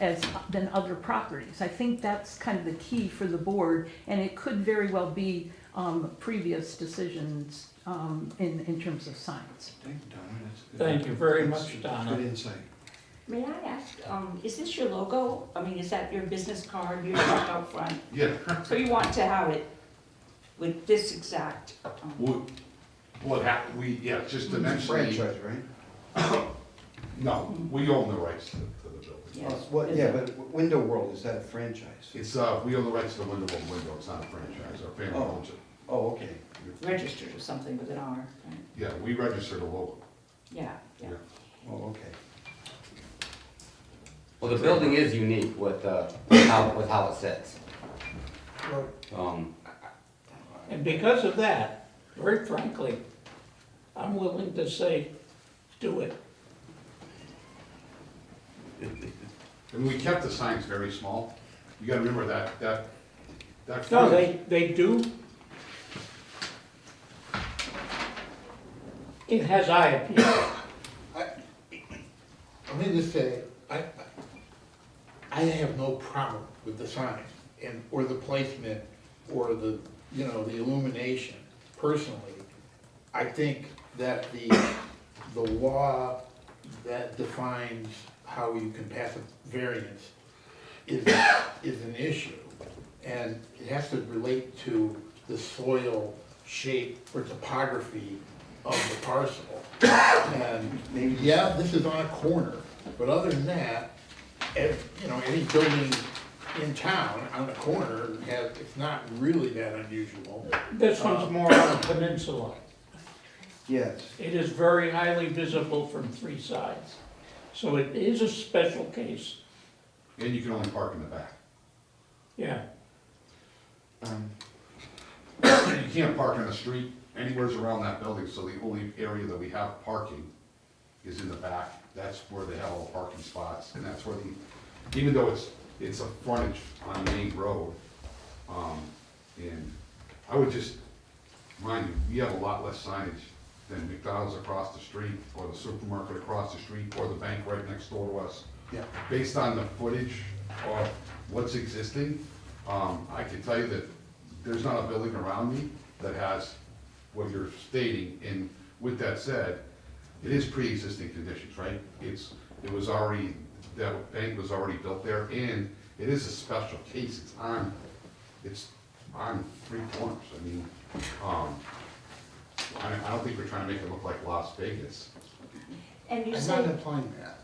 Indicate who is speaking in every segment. Speaker 1: as, than other properties. I think that's kind of the key for the board, and it could very well be, um, previous decisions, um, in, in terms of science.
Speaker 2: Thank you, Donna. That's good.
Speaker 3: Thank you very
Speaker 2: That's
Speaker 3: much, Donna.
Speaker 2: Good insight.
Speaker 4: May I ask, um, is this your logo? I mean, is that your business card, your truck out front?
Speaker 5: Yeah,
Speaker 4: So you want to have it with this exact, um,
Speaker 5: what, what happened, we, yeah, just the next thing,
Speaker 2: Franchise, right?
Speaker 5: no, we own the rights to, to the building.
Speaker 4: Yeah.
Speaker 2: Well, What, yeah, but w- Window World, is that a franchise?
Speaker 5: It's, uh, we own the rights to the window and window, it's not a franchise, our family
Speaker 2: Oh.
Speaker 5: owns it.
Speaker 2: Oh, okay.
Speaker 4: registered or something with an R, right?
Speaker 5: Yeah, we register the logo.
Speaker 4: Yeah, yeah.
Speaker 5: Yeah.
Speaker 2: Oh, okay.
Speaker 6: Well, the building is unique with, uh, with how, with how it sits. Um,
Speaker 3: And because of that, very frankly, I'm willing to say, do it.
Speaker 5: And we kept the signs very small. You gotta remember that, that, that.
Speaker 3: No, they, they do. It has eye appeal.
Speaker 7: Let me just say, I, I- I have no problem with the sign and, or the placement, or the, you know, the illumination, personally. I think that the, the law that defines how you can pass a variance is, is an issue. And it has to relate to the soil shape or topography of the parcel. And maybe, yeah, this is on a corner, but other than that, ev- you know, any building in town on the corner has, it's not really that unusual.
Speaker 3: This one's more on a peninsula.
Speaker 2: Yes.
Speaker 3: It is very highly visible from three sides. So it is a special case,
Speaker 5: And you can only park in the back.
Speaker 3: yeah.
Speaker 2: Um,
Speaker 5: You can't park on the street anywheres around that building, so the only area that we have parking is in the back. That's where they have all the parking spots, and that's where the, even though it's, it's a frontage on Main Road, um, and I would just, mind you, you have a lot less signage than McDonald's across the street, or the supermarket across the street, or the bank right next door to us
Speaker 2: Yeah.
Speaker 5: based on the footage of what's existing, um, I can tell you that there's not a building around me that has what you're stating, and with that said, it is pre-existing conditions, right? It's, it was already, that bank was already built there, and it is a special case, it's on, it's on three corners, I mean, um, I, I don't think we're trying to make it look like Las Vegas.
Speaker 4: And you
Speaker 7: I'm not
Speaker 4: said,
Speaker 7: implying that.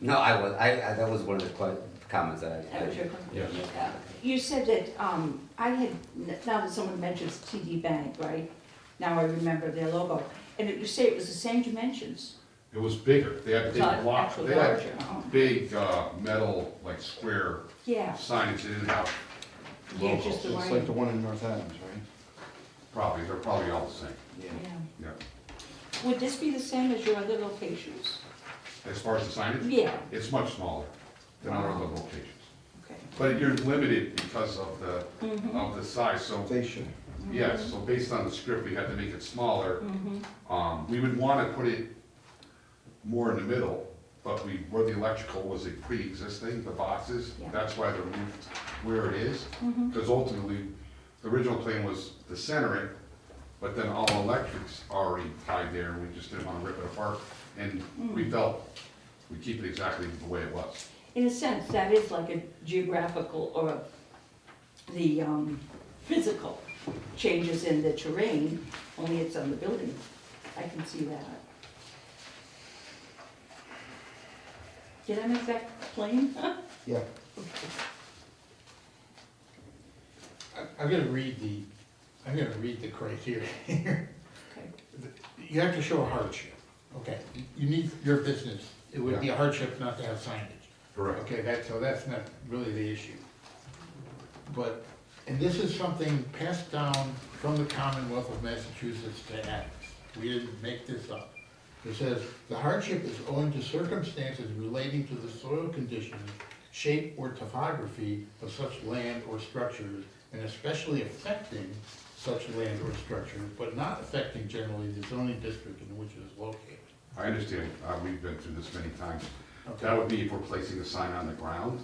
Speaker 6: no, I was, I, I, that was one of the que- comments that I,
Speaker 4: that was your
Speaker 6: I,
Speaker 4: question.
Speaker 5: Yes.
Speaker 4: Uh, You said that, um, I had, now that someone mentions TD Bank, right? Now I remember their logo. And you say it was the same dimensions.
Speaker 5: It was bigger, they had big
Speaker 4: Not
Speaker 5: blocks,
Speaker 4: actually
Speaker 5: they had
Speaker 4: larger, huh?
Speaker 5: big, uh, metal, like square
Speaker 4: Yeah,
Speaker 5: signage, they didn't have
Speaker 4: yeah, just
Speaker 5: logos.
Speaker 4: the
Speaker 2: It's like
Speaker 4: right,
Speaker 2: the one in North Adams, right?
Speaker 5: Probably, they're probably all the same,
Speaker 2: Yeah.
Speaker 4: yeah.
Speaker 5: yeah.
Speaker 4: Would this be the same as your other locations?
Speaker 5: As far as the signage?
Speaker 4: Yeah.
Speaker 5: It's much smaller than our other locations.
Speaker 4: Okay.
Speaker 5: But you're limited because of the,
Speaker 4: Mm-hmm.
Speaker 5: of the size, so,
Speaker 2: They should.
Speaker 5: yeah, so based on the script, we had to make it smaller. Um, we would wanna put it more in the middle, but we, where the electrical was a pre-existing, the boxes,
Speaker 4: Yeah.
Speaker 5: that's why they're moved where it is. Because ultimately, the original plan was to center it, but then all electrics already tied there, and we just didn't wanna rip it apart. And we felt we keep it exactly the way it was.
Speaker 4: In a sense, that is like a geographical or the um, physical changes in the terrain, only it's on the building. I can see that. Did I make that plain?
Speaker 2: Yeah.
Speaker 7: I- I'm gonna read the, I'm gonna read the criteria here.
Speaker 4: Okay.
Speaker 7: You have to show a hardship, okay? You need your business, it would be a hardship not to have signage.
Speaker 5: Correct.
Speaker 7: Okay, that, so that's not really the issue. But, and this is something passed down from the Commonwealth of Massachusetts to Adams. We didn't make this up. It says, "The hardship is owing to circumstances relating to the soil conditions, shape or topography of such land or structures, and especially affecting such land or structures, but not affecting generally the zoning district in which it is located."
Speaker 5: I understand, uh, we've been through this many times.
Speaker 7: Okay.
Speaker 5: That would be if we're placing a sign on the ground,